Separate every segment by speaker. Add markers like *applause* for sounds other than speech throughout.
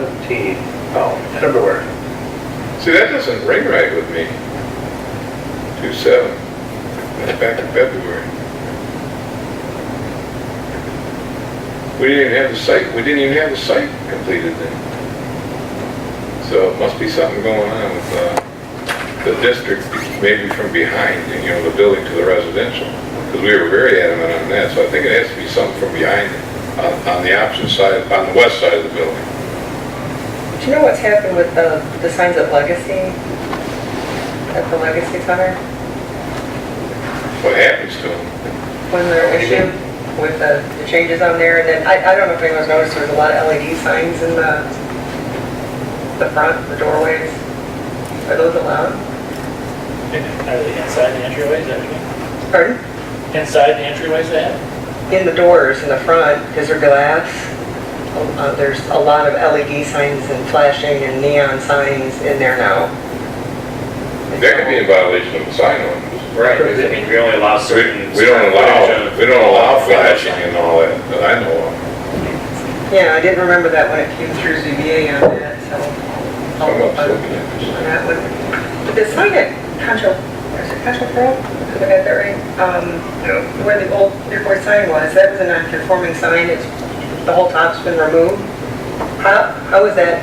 Speaker 1: 17, oh, February.
Speaker 2: See, that doesn't ring right with me. Two seven, that's back in February. We didn't even have the site, we didn't even have the site completed then. So it must be something going on with, uh, the district, maybe from behind, and, you know, the building to the residential. Because we were very adamant on that, so I think it has to be something from behind, on, on the opposite side, on the west side of the building.
Speaker 3: Do you know what's happened with the, the signs at Legacy? At the Legacy Center?
Speaker 2: What happens to them?
Speaker 3: When their issue with the, the changes on there, and then, I, I don't know if anyone's noticed, there's a lot of LED signs in the, the front, the doorways. Are those allowed?
Speaker 4: Are they inside the entryways, everything?
Speaker 3: Pardon?
Speaker 4: Inside the entryways they have?
Speaker 3: In the doors, in the front, because they're glass, uh, there's a lot of LED signs and flashing and neon signs in there now.
Speaker 2: That could be in violation of the sign ordinance.
Speaker 5: Right, I mean, we only
Speaker 2: We
Speaker 5: allow certain.
Speaker 2: we don't
Speaker 5: footage
Speaker 2: allow,
Speaker 5: of-
Speaker 2: we don't allow flashing and all that, that I know of.
Speaker 3: Yeah, I didn't remember that when it came through ZBA on that, so. I'll-
Speaker 5: Oh,
Speaker 2: Someone's
Speaker 3: I'll-
Speaker 2: looking at this.
Speaker 3: And that was, but the sign at Concho, is it Concho Pro? Did I get that right? Um, where the old Newport sign was, that was a non-conforming sign, it's, the whole top's been removed. How, how is that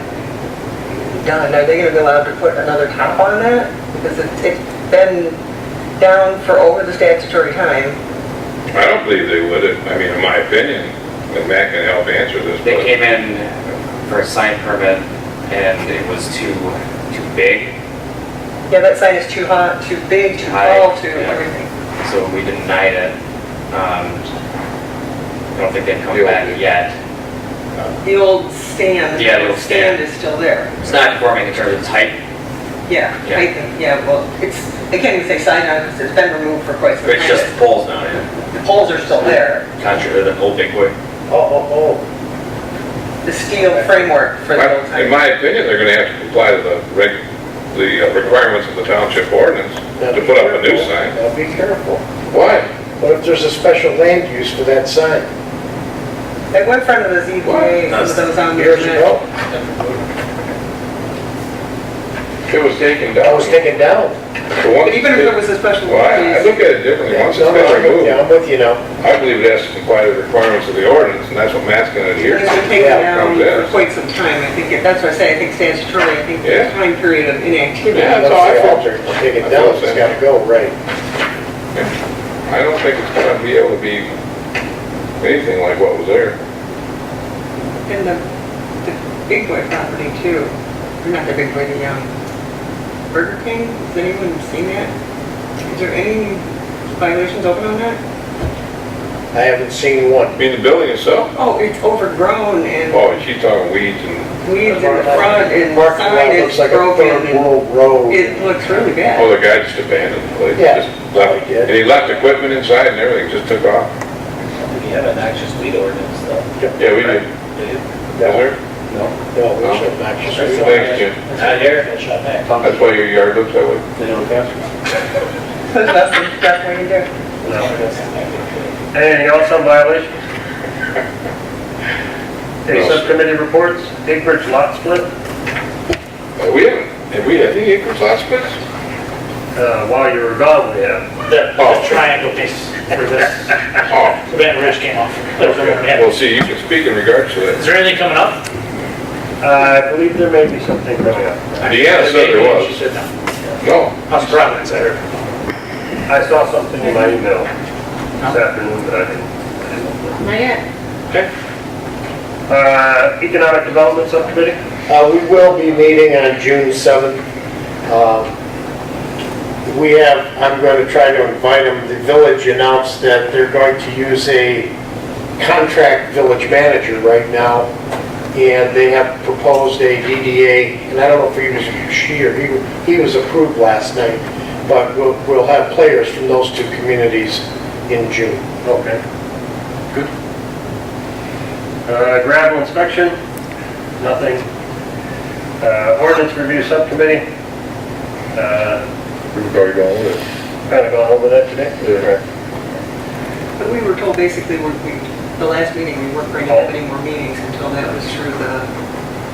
Speaker 3: done? Are they gonna be allowed to put another top on that? Because it's, it's been down for over the statutory time.
Speaker 2: I don't believe they would, if- I mean, in my opinion, and Matt can help answer this,
Speaker 5: They
Speaker 2: but
Speaker 5: came in for a sign permit and it was too, too big,
Speaker 3: Yeah, that sign is too hot, too big, too
Speaker 5: High,
Speaker 3: tall, too
Speaker 5: yeah.
Speaker 3: everything.
Speaker 5: so we denied it. Um, I don't think they've come
Speaker 2: Yeah.
Speaker 5: back yet.
Speaker 3: The old stand.
Speaker 5: Yeah, the old stand.
Speaker 3: is still there.
Speaker 5: It's not conforming in terms of type,
Speaker 3: Yeah,
Speaker 5: Yeah.
Speaker 3: I think, yeah, well, it's, they can't even say sign on because it's been removed for quite some
Speaker 5: but
Speaker 3: time.
Speaker 5: it's just the poles now, yeah,
Speaker 3: The poles are still there,
Speaker 5: contrary to the old big boy.
Speaker 1: Oh, oh,
Speaker 3: the steel framework for the old
Speaker 2: my- in
Speaker 3: time.
Speaker 2: my opinion, they're gonna have to comply to the reg, the uh, requirements of the township ordinance
Speaker 1: oh.
Speaker 2: to put up a new sign.
Speaker 1: Now be careful.
Speaker 2: Why?
Speaker 1: What if there's a special land use for that sign?
Speaker 3: At one front of the ZBA, some of those on there.
Speaker 1: Years ago,
Speaker 2: It was taken
Speaker 1: that
Speaker 2: down.
Speaker 1: was taken down.
Speaker 2: The one-
Speaker 3: But even if there was a special
Speaker 2: Well, I I
Speaker 3: use,
Speaker 2: look at it differently, once it's
Speaker 1: No, no, I'm
Speaker 2: been
Speaker 1: with
Speaker 2: removed,
Speaker 1: you, I'm with you now.
Speaker 2: I believe it has to comply to the requirements of the ordinance, and that's what Matt's gonna adhere
Speaker 3: because
Speaker 2: to.
Speaker 3: they're taken
Speaker 1: Yeah,
Speaker 2: comes
Speaker 3: down
Speaker 2: in.
Speaker 3: for quite some time, I think, it- that's what I say, I think statutory, I think
Speaker 2: Yeah.
Speaker 3: the time period of
Speaker 2: Yeah.
Speaker 3: inactivity.
Speaker 2: that's all I felt.
Speaker 1: If it's Taken
Speaker 2: I
Speaker 1: down,
Speaker 2: felt
Speaker 1: it's
Speaker 2: that.
Speaker 1: gotta go, right.
Speaker 2: I don't think it's gonna be able to be anything like what was there.
Speaker 3: And the, the Big Boy property too, or not the Big Boy, the, um, Burger King, has anyone seen that? Is there any violations open on that?
Speaker 1: I haven't seen one.
Speaker 2: I mean, the building itself,
Speaker 3: Oh, it's overgrown and
Speaker 2: oh, she's talking weeds and,
Speaker 3: weeds in the front
Speaker 1: Parking
Speaker 3: and
Speaker 1: lot
Speaker 3: sign is
Speaker 1: looks like a third
Speaker 3: broken and
Speaker 1: world road.
Speaker 3: it looks really
Speaker 2: oh,
Speaker 3: bad.
Speaker 2: the guy just abandoned the place.
Speaker 1: Yeah.
Speaker 2: Just left-
Speaker 1: Yeah.
Speaker 2: And he left equipment inside and everything, just took off.
Speaker 6: We have an noxious weed ordinance though.
Speaker 2: Yeah, we did. Was there?
Speaker 6: No.
Speaker 1: No, there's no noxious
Speaker 2: Thanks,
Speaker 1: weed.
Speaker 2: Jim.
Speaker 6: Not here.
Speaker 4: They shot back.
Speaker 2: That's why your yard looks that way.
Speaker 6: They don't have.
Speaker 3: *laughs* That's, that's what you do.
Speaker 1: Anything else on violation? Any subcommittee reports? Big Bridge lot split?
Speaker 2: Uh, We haven't, have we had any acres last split?
Speaker 1: Uh, while you were gone, we have.
Speaker 4: The the triangle piece for this,
Speaker 2: Oh,
Speaker 4: Van Ridge came off. That was the one we had.
Speaker 2: well, see, you can speak in regards to
Speaker 4: Is
Speaker 2: that.
Speaker 4: there anything coming up?
Speaker 1: Uh, I believe there may be something coming up.
Speaker 2: Deanna said there
Speaker 4: She
Speaker 2: was.
Speaker 4: said no.
Speaker 2: No,
Speaker 4: House Providence, I heard.
Speaker 1: I saw something in my email this afternoon that I didn't.
Speaker 3: Not yet.
Speaker 1: Uh, Economic Development Subcommittee?
Speaker 7: Uh, We will be meeting on June 7th. Um, We have, I'm going to try to invite them, the village announced that they're going to use a contract village manager right now, and they have proposed a DDA, and I don't know if he was, she or he, he was approved last night, but we'll, we'll have players from those two communities in June.
Speaker 1: Okay. Good. Uh, Gravel Inspection? Nothing. Uh, Ordinance Review Subcommittee? Kind
Speaker 2: we've already gone with it.
Speaker 1: of gone over that today?
Speaker 2: Yeah.
Speaker 3: But we were told basically, we, we- the last meeting, we weren't going to have any more meetings until that was through the